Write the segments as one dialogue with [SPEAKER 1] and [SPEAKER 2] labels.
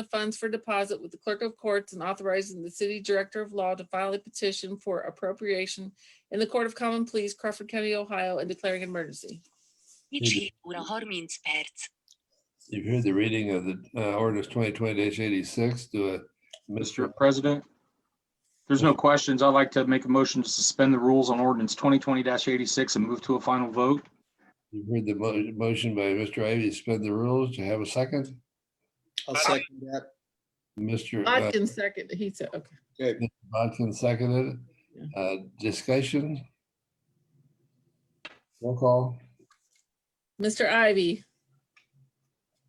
[SPEAKER 1] the funds for deposit with the clerk of courts and authorizing the city director of law to file a petition for appropriation in the Court of Common Pleas, Crawford County, Ohio, and declaring an emergency.
[SPEAKER 2] Nici ură hormin sperți.
[SPEAKER 3] You've heard the reading of the uh, ordinance twenty twenty eighty-six. Do a, Mr.
[SPEAKER 4] Mr. President, there's no questions. I'd like to make a motion to suspend the rules on ordinance twenty twenty eighty-six and move to a final vote.
[SPEAKER 3] You've heard the mo- motion by Mr. Ivy, to suspend the rules. Do you have a second?
[SPEAKER 5] I'll second that.
[SPEAKER 3] Mr. uh,
[SPEAKER 1] Bodkin second, he said, okay.
[SPEAKER 5] Okay,
[SPEAKER 3] Bodkin seconded. it. Uh, Discussion? Roll call.
[SPEAKER 1] Mr. Ivy,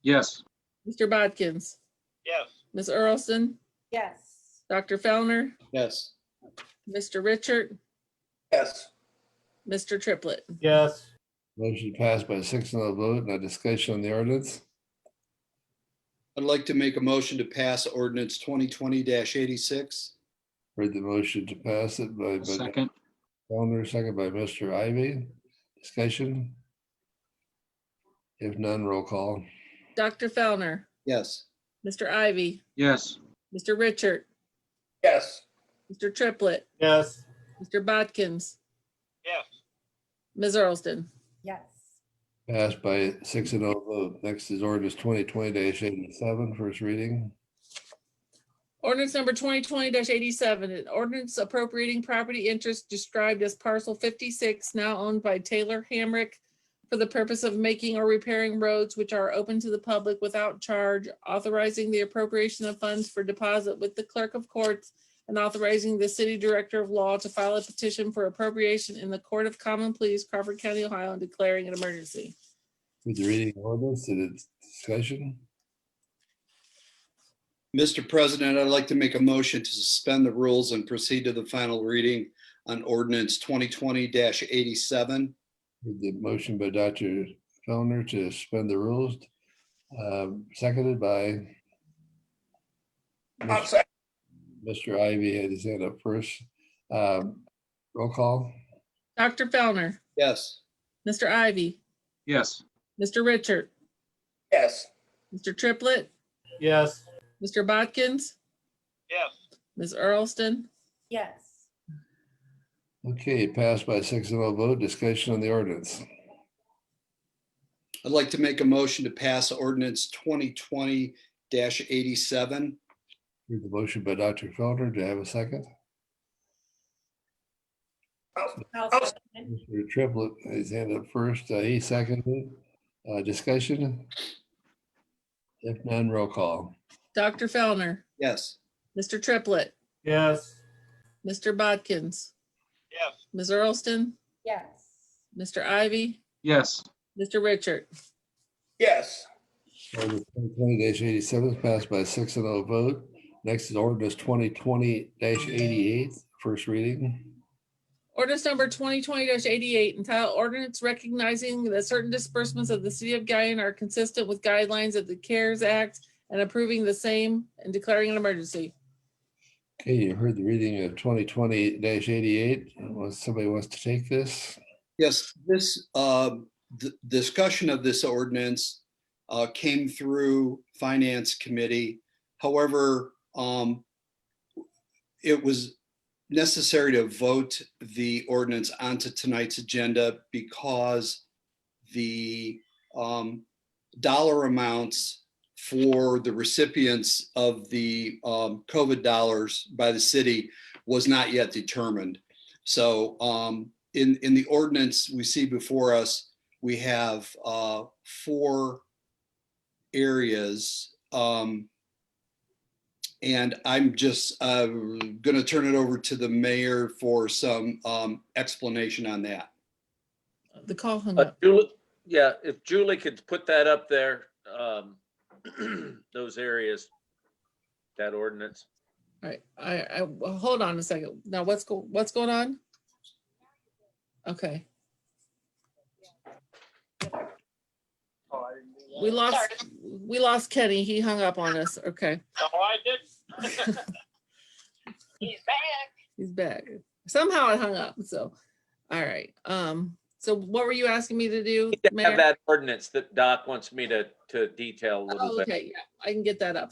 [SPEAKER 4] Yes,
[SPEAKER 1] Mr. Bodkins,
[SPEAKER 6] yes,
[SPEAKER 1] Ms. Earlston,
[SPEAKER 7] yes,
[SPEAKER 1] Dr. Fellner,
[SPEAKER 5] yes.
[SPEAKER 1] Mr. Richard,
[SPEAKER 5] Yes.
[SPEAKER 1] Mr. Triplett.
[SPEAKER 8] yes,
[SPEAKER 3] Motion passed by six and a vote. Now discussion on the ordinance.
[SPEAKER 5] I'd like to make a motion to pass ordinance twenty twenty eighty-six.
[SPEAKER 3] Heard the motion to pass it by, by
[SPEAKER 4] second.
[SPEAKER 3] Felner, second by Mr. Ivy. Discussion? If none, roll call.
[SPEAKER 1] Dr. Fellner,
[SPEAKER 5] Yes.
[SPEAKER 1] Mr. Ivy,
[SPEAKER 4] Yes,
[SPEAKER 1] Mr. Richard,
[SPEAKER 5] Yes.
[SPEAKER 1] Mr. Triplett,
[SPEAKER 8] yes,
[SPEAKER 1] Mr. Bodkins,
[SPEAKER 6] yes,
[SPEAKER 1] Ms. Earlston.
[SPEAKER 7] yes,
[SPEAKER 3] Passed by six and oh vote. Next is ordinance twenty twenty 87 First reading.
[SPEAKER 1] Ordinance number twenty twenty eighty-seven, an ordinance appropriating property interest described as parcel fifty-six, now owned by Taylor Hamrick for the purpose of making or repairing roads which are open to the public without charge, authorizing the appropriation of funds for deposit with the clerk of courts and authorizing the city director of law to file a petition for appropriation in the Court of Common Pleas, Crawford County, Ohio, and declaring an emergency.
[SPEAKER 3] With the reading of ordinance and its discussion.
[SPEAKER 5] Mr. President, I'd like to make a motion to suspend the rules and proceed to the final reading on ordinance twenty twenty eighty-seven.
[SPEAKER 3] Heard The motion by Dr. Fellner to suspend the rules, um, seconded by Mr. Ivy had his hand up first. Um, Roll call.
[SPEAKER 1] Dr. Fellner,
[SPEAKER 5] Yes.
[SPEAKER 1] Mr. Ivy,
[SPEAKER 4] yes,
[SPEAKER 1] Mr. Richard,
[SPEAKER 5] Yes.
[SPEAKER 1] Mr. Triplett,
[SPEAKER 8] yes,
[SPEAKER 1] Mr. Bodkins,
[SPEAKER 6] yes,
[SPEAKER 1] Ms. Earlston,
[SPEAKER 7] yes.
[SPEAKER 3] Okay, passed by six and oh vote. Discussion on the ordinance.
[SPEAKER 5] I'd like to make a motion to pass ordinance twenty twenty eighty-seven.
[SPEAKER 3] Heard The motion by Dr. Fellner. Do I have a second?
[SPEAKER 7] I'll second.
[SPEAKER 3] Mr. Triplett, his hand up first, uh, he seconded. it. Uh, Discussion? If none, roll call.
[SPEAKER 1] Dr. Fellner,
[SPEAKER 5] Yes.
[SPEAKER 1] Mr. Triplett,
[SPEAKER 8] yes,
[SPEAKER 1] Mr. Bodkins,
[SPEAKER 6] yes,
[SPEAKER 1] Ms. Earlston,
[SPEAKER 7] Yes,
[SPEAKER 1] Mr. Ivy,
[SPEAKER 4] yes,
[SPEAKER 1] Mr. Richard,
[SPEAKER 5] Yes.
[SPEAKER 3] Ordinance twenty eighty-seven is passed by six and oh vote. Next is ordinance twenty twenty 88 eighty-eight, first reading.
[SPEAKER 1] Ordinance number twenty twenty eighty-eight, entitled ordinance recognizing that certain disbursements of the city of Guyan are consistent with guidelines of the CARES Act and approving the same and declaring an emergency.
[SPEAKER 3] Okay, you heard the reading of twenty twenty eighty-eight. Somebody wants to take this?
[SPEAKER 5] Yes, this, uh, the discussion of this ordinance uh, came through Finance Committee. However, um, it was necessary to vote the ordinance onto tonight's agenda because the um, dollar amounts for the recipients of the um, COVID dollars by the city was not yet determined. So um, in, in the ordinance we see before us, we have uh, four areas. Um, And I'm just uh, gonna turn it over to the mayor for some um, explanation on that.
[SPEAKER 1] The call hung
[SPEAKER 9] Uh,
[SPEAKER 1] up.
[SPEAKER 9] Julie, yeah, if Julie could put that up there, um, those areas, that ordinance.
[SPEAKER 1] All right, I, I, well, hold on a second. Now what's go, what's going on? Okay. We lost, we lost Kenny. He hung up on us. Okay,
[SPEAKER 6] no, I didn't.
[SPEAKER 2] He's back.
[SPEAKER 1] he's back. Somehow I hung up, so, all right. Um, so what were you asking me to do?
[SPEAKER 9] Need to
[SPEAKER 1] Mayor?
[SPEAKER 9] Have that ordinance that Doc wants me to, to detail
[SPEAKER 1] Oh,
[SPEAKER 9] a little bit.
[SPEAKER 1] Okay, yeah, I can get that up.